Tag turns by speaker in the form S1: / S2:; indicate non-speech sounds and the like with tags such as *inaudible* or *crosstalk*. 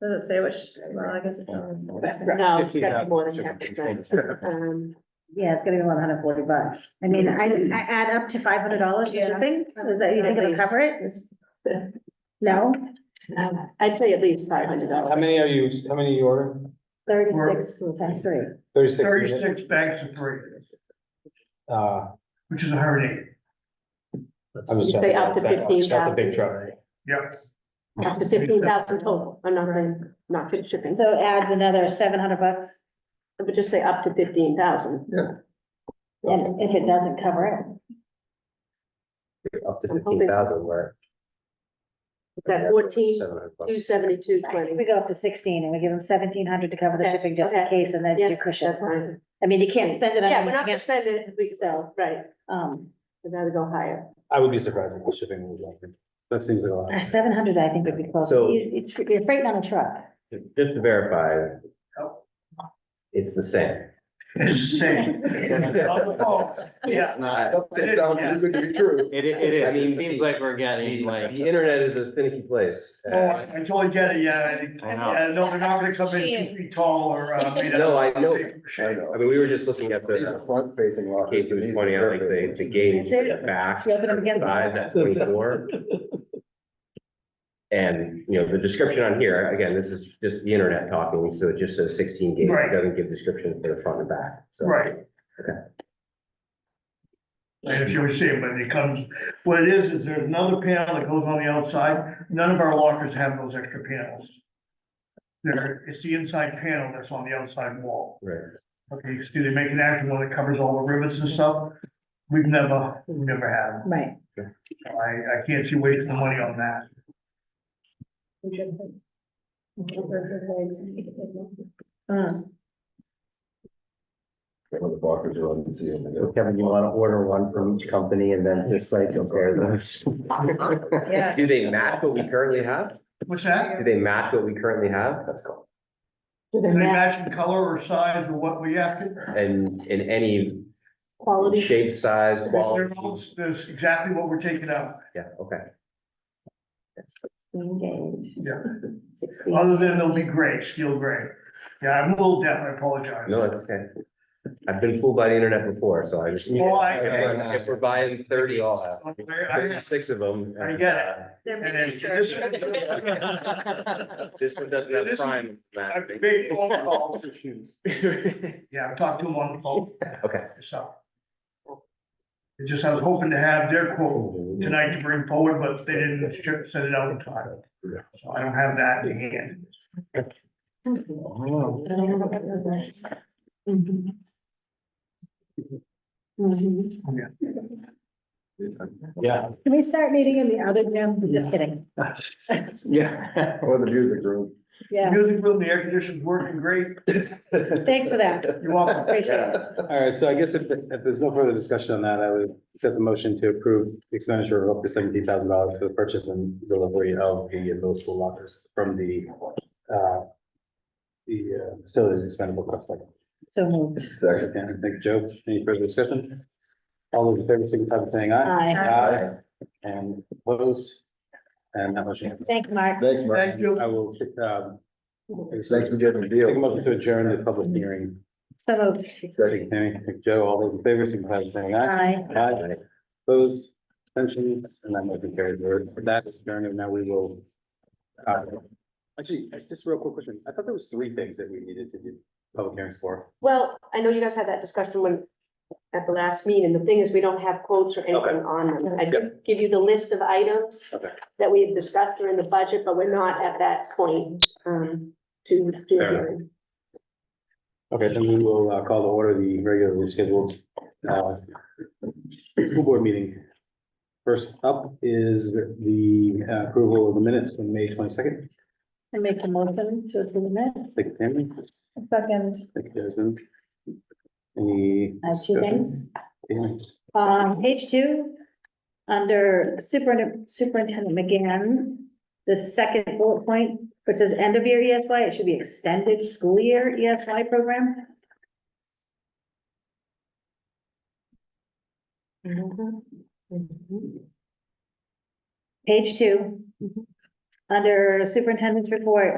S1: Does it say which, well, I guess. it doesn't.
S2: No, it's gotta be more than half the price. Um,
S3: Yeah, it's gonna be one hundred forty bucks. I mean, I, I add up to five hundred dollars for
S1: Yeah.
S3: shipping. Is that, you think
S2: At
S3: it'll
S2: least.
S3: cover it? No?
S2: um, I'd say at least five hundred
S4: How
S2: dollars.
S4: many are you, how many you order?
S3: Thirty-six times three.
S4: Thirty-six? units?
S5: Thirty-six bags of burritos,
S4: Uh,
S5: which is a hundred and eighty.
S4: I was.
S2: You say
S4: talking
S2: up to
S4: about that one. It's Not the
S2: 15,000.
S4: big truck.
S5: Yep.
S2: Up to fifteen thousand total, I'm not, gonna- not fit shipping,
S3: So adds another seven hundred bucks.
S2: but just say up to fifteen thousand.
S3: And if it doesn't cover it,
S6: Up to
S2: I'm hoping-
S6: fifteen thousand, where.
S2: That fourteen,
S6: Seven hundred bucks.
S2: two seventy-two,
S3: I think
S2: twenty,
S3: we go up to sixteen and we give them seventeen hundred to cover the
S2: Okay,
S3: shipping just in
S2: okay.
S3: case and that's
S2: Yeah,
S3: your cushion.
S2: that's fine.
S3: I mean, you can't spend it on.
S2: Yeah, we're not gonna
S3: anything
S2: spend
S3: else.
S2: it, we, so, right,
S3: Um,
S2: we gotta go higher.
S4: I would be surprised if the shipping was like, that seems like a lot.
S3: seven hundred, I think would be close.
S6: So-
S3: You- It's, you're freighting on a truck.
S6: Just to verify. It's the same.
S5: It's the same. On the phone. Yeah.
S6: It's not.
S5: It sounds too
S6: good to be true.
S7: It, i- it is,
S6: I
S7: I mean,
S6: mean,
S7: it seems
S6: the-
S7: like we're getting like,
S6: The internet is a finicky place. Uh,
S5: Oh, I I totally get it, yeah, I think-
S7: I know.
S5: yeah, no, they're not gonna come in two feet tall or, uh, made out.
S6: No, I
S5: of
S6: know.
S5: paper mache.
S6: I I mean, we were just looking at
S8: These are
S6: the,
S8: front facing lockers.
S6: Casey was pointing out like the, the gauge
S3: That's
S6: back.
S3: You open them again.
S6: Size at twenty-four. And, you know, the description on here, again, this is just the internet talking, so it just says sixteen gauge.
S5: Right.
S6: It doesn't give description for the front and back, so.
S5: Right. And if you were saying, when it comes, what it is, is there's another panel that goes on the outside, none of our lockers have those extra panels. There, it's the inside panel that's on the outside wall.
S6: Right.
S5: Okay, you see, they make an active one that covers all the rivets and stuff. We've never, we've never had them.
S3: Right.
S5: I, I can't see wasting the money on that.
S3: Mm.
S8: When the blockers are on, you can see them.
S6: Kevin, you wanna order one from each company and then just like compare those?
S1: Yeah.
S6: Do they match what we currently have?
S5: What's that?
S6: Do they match what we currently have?
S8: That's cool.
S2: Do
S5: Do
S2: they
S5: they
S2: match
S5: match in color or size or what we after?
S6: And in any
S2: quality?
S6: shape, size,
S5: They're
S6: quality?
S5: all- That's exactly what we're taking out.
S6: Yeah, okay.
S3: Sixteen gauge.
S5: Yeah.
S3: Sixteen.
S5: Other than they'll be gray, steel gray. Yeah, I'm a little deaf, I apologize.
S6: No, that's okay. I've been fooled by the internet before, so I just.
S5: Well, I-
S6: If we're buying thirty,
S5: I-
S6: thirty-six of them.
S5: I get it.
S1: They're
S5: And then
S1: miniatures.
S6: uh, This one doesn't have
S5: This is-
S6: prime.
S5: I
S6: mapping.
S5: have big phone calls.
S6: Okay,
S5: Yeah, I've talked to them on the phone, so. It just, I was hoping to have their quote tonight to bring forward, but they didn't ship, send it out in time. So I don't have that in hand.
S3: Mm-hmm.
S2: Mhm. Mhm.
S4: Yeah,
S3: Mm-hmm. Can we start meeting in the other gym? Just kidding.
S4: yeah.
S8: Or the
S6: *laughs*
S8: music room.
S3: Yeah,
S5: Music room, the air conditioning's working great.
S3: thanks for that.
S5: You're welcome.
S3: Appreciate it.
S4: All right, so I guess if, if there's no further discussion on that, I would accept the motion to approve the expenditure of up to seventeen thousand dollars for the purchase and delivery of the middle school lockers from the, uh, the uh, facilities expendable trust fund.
S3: So moved.
S8: Second.
S4: Okay, Thank you, Joe. Any further discussion? All those in favor, signify by saying aye.
S3: Aye.
S4: Aye. And opposed? And that motion.
S3: Thank you, Mark.
S8: Thanks, Mark.
S5: Thank you.
S4: I will, um,
S2: *laughs*
S8: Thanks for getting the deal.
S4: take a motion to adjourn the public hearing.
S3: So moved.
S4: Thank you, Tammy. Thank you, Joe. All those in favor, signify by saying aye.
S3: Aye.
S4: Aye. Opposed, Abstentions? and that motion carries. We're- That is adjourned, and now we will. uh, Actually, I- just real quick question. I thought there was three things that we needed to do public hearings for.
S2: Well, I know you guys had that discussion when, at the last meeting, the thing is, we don't have quotes or anything on them. I did give you the list of items
S4: Okay.
S2: that we have discussed during the budget, but we're not at that point, um, to do
S4: Fair enough.
S2: anything.
S4: Okay, then we will uh, call to order the regularly scheduled uh, school board meeting. First up is the uh, approval of the minutes from May twenty-second.
S3: I make a motion to approve minutes.
S4: Thank you, Tammy.
S3: Second.
S4: Thank you, Desmond. Any?
S3: Uh, two things.
S4: discussion?
S3: Um, page two, under superintendent, superintendent McGann, the second bullet point, which says end of year ESY, it should be extended school year ESY program. Page two. Under superintendent's report,